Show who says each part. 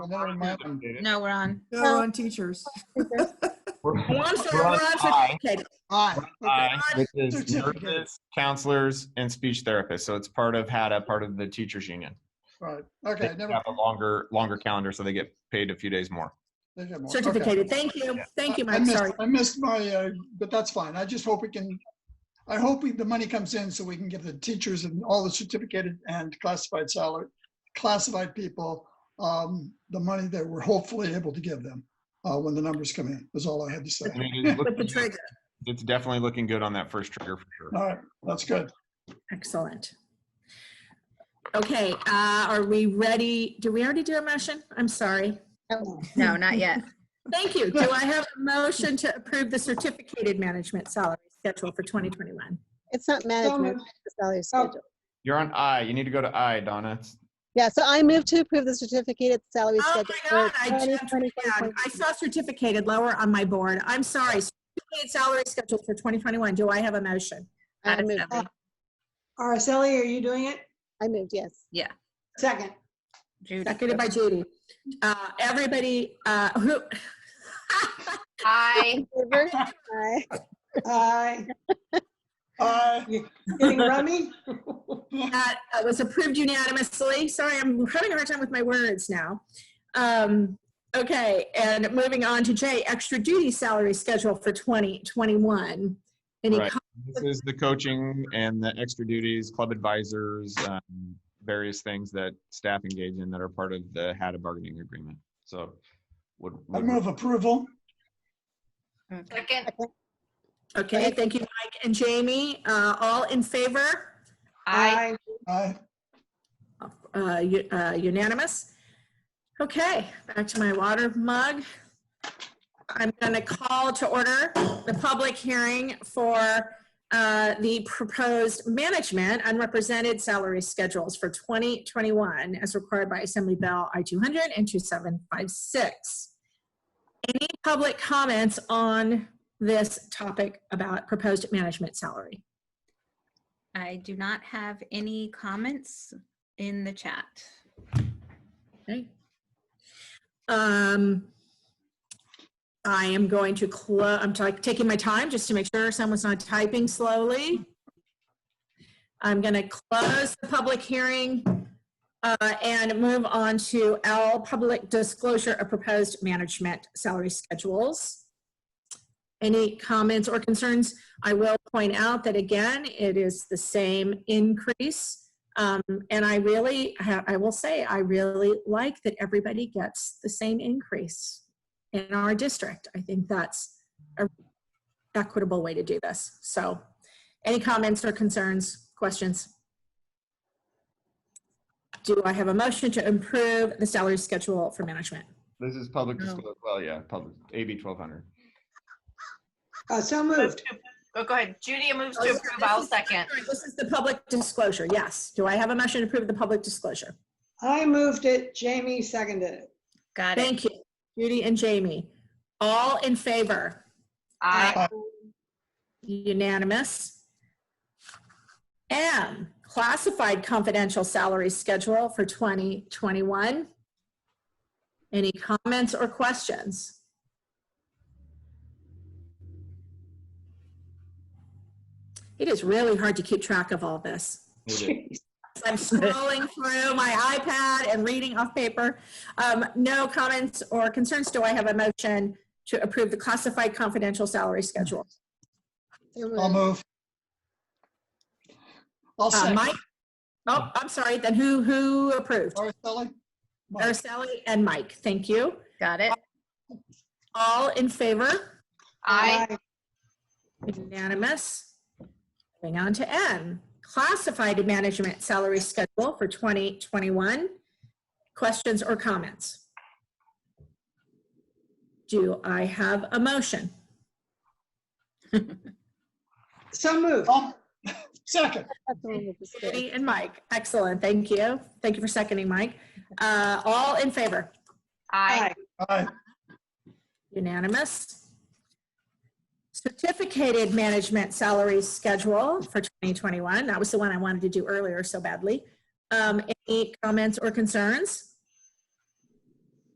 Speaker 1: Then I'm
Speaker 2: We're on
Speaker 1: mad.
Speaker 2: educated.
Speaker 3: No, we're on.
Speaker 4: No, we're on teachers.
Speaker 2: We're
Speaker 5: Oh, I'm sorry,
Speaker 2: we're on
Speaker 5: we're not
Speaker 2: I,
Speaker 5: certificated.
Speaker 1: Aye. Okay.
Speaker 2: I, which is
Speaker 1: Certificate.
Speaker 2: nurses, counselors, and speech therapists. So it's part of HADA, part of the teachers union.
Speaker 1: Right.
Speaker 2: They
Speaker 1: Okay.
Speaker 2: have
Speaker 1: Never.
Speaker 2: a longer, longer calendar, so they get paid a few days more.
Speaker 1: they have more. Okay.
Speaker 5: Certificated. Thank you. Thank you,
Speaker 1: I- I
Speaker 5: Mike.
Speaker 1: missed-
Speaker 5: Sorry.
Speaker 1: I missed my, uh, but that's fine. I just hope we can, I hope we- the money comes in so we can give the teachers and all the certificated and classified salary, classified people, um, the money that we're hopefully able to give them uh, when the numbers come in, is all I had to say.
Speaker 2: I mean, it's
Speaker 5: With the
Speaker 2: looking good.
Speaker 5: trigger.
Speaker 2: It's definitely looking good on that first trigger for sure.
Speaker 1: All right, that's good.
Speaker 5: Excellent. Okay, uh, are we ready? Do we already do a motion? I'm sorry. Oh.
Speaker 3: No, not yet.
Speaker 5: Thank you. Do I have a motion to approve the certificated management salary schedule for 2021?
Speaker 6: It's not management,
Speaker 1: moved.
Speaker 6: it's the salary
Speaker 5: Oh.
Speaker 6: schedule.
Speaker 2: You're on I. You need to go to I, Donna. It's-
Speaker 6: Yeah, so I move to approve the certificated salary
Speaker 5: Oh
Speaker 6: schedule.
Speaker 5: my
Speaker 6: for
Speaker 5: God, I jumped
Speaker 6: 2021.
Speaker 5: down. I saw certificated lower on my board. I'm sorry. Certificated salary schedule for 2021. Do I have a motion?
Speaker 6: I moved,
Speaker 7: Araceli, are you doing it?
Speaker 6: I moved, yes.
Speaker 7: Second.
Speaker 3: Judy.
Speaker 5: Seconded by Judy. Uh, everybody, uh, who?
Speaker 3: Hi.
Speaker 6: Favor? Aye.
Speaker 7: Aye.
Speaker 1: Aye.
Speaker 7: Uh, Getting rummy?
Speaker 5: That uh, was approved unanimously. Sorry, I'm having a hard time with my words now. Um, okay, and moving on to J, extra duty salary schedule for 2021. Any
Speaker 2: Right.
Speaker 5: com-
Speaker 2: This is the coaching and the extra duties, club advisors, um, various things that staff engage in that are part of the HADA bargaining agreement. So would.
Speaker 1: I
Speaker 2: would-
Speaker 1: move approval.
Speaker 3: Second.
Speaker 5: Okay, thank you, Mike and Jamie. Uh, all in favor?
Speaker 3: Aye.
Speaker 1: Aye.
Speaker 5: Uh, u- uh, unanimous. Okay, back to my water mug. I'm going to call to order the public hearing for uh, the proposed management unrepresented salary schedules for 2021 as required by Assembly Bill I-200 and 2756. Any public comments on this topic about proposed management salary?
Speaker 3: I do not have any comments in the chat.
Speaker 5: Okay. Um, I am going to close, I'm ta- taking my time just to make sure someone's not typing slowly. I'm going to close the public hearing uh, and move on to L, public disclosure of proposed management salary schedules. Any comments or concerns? I will point out that again, it is the same increase. Um, and I really, ha- I will say, I really like that everybody gets the same increase in our district. I think that's a equitable way to do this. So any comments or concerns, questions? Do I have a motion to improve the salary schedule for management?
Speaker 2: This is public
Speaker 3: No.
Speaker 2: disclosure. Well, yeah, public, AB 1200.
Speaker 7: Uh, So
Speaker 8: Move
Speaker 7: moved.
Speaker 8: to, oh, go ahead. Judy moves to approve. I'll second.
Speaker 5: This is the public disclosure, yes. Do I have a motion to approve the public disclosure?
Speaker 7: I moved it. Jamie seconded it.
Speaker 3: Got it.
Speaker 5: Thank you, Judy and Jamie. All in favor?
Speaker 8: Aye.
Speaker 5: Unanimous. M, classified confidential salary schedule for 2021. Any comments or questions? It is really hard to keep track of all this. I'm scrolling through my iPad and reading off paper. Um, No comments or concerns. Do I have a motion to approve the classified confidential salary schedule?
Speaker 6: So
Speaker 1: I'll
Speaker 6: moved.
Speaker 1: move. I'll
Speaker 5: Uh,
Speaker 1: second.
Speaker 5: Mike? Oh, I'm sorry, then who, who approved?
Speaker 1: Araceli? Mike.
Speaker 5: Araceli and Mike, thank you.
Speaker 3: Got it.
Speaker 5: All in favor?
Speaker 8: Aye.
Speaker 5: Unanimous. Moving on to N, classified management salary schedule for 2021. Questions or comments? Do I have a motion?
Speaker 7: So moved.
Speaker 1: I'll- Oh, Second.
Speaker 6: That's the one with the state.
Speaker 5: Judy and Mike, excellent, thank you. Thank you for seconding, Mike. Uh, All in favor?
Speaker 8: Aye.
Speaker 1: Aye.
Speaker 5: Unanimous. Certificated management salary schedule for 2021. That was the one I wanted to do earlier so badly. Um, Any comments or concerns?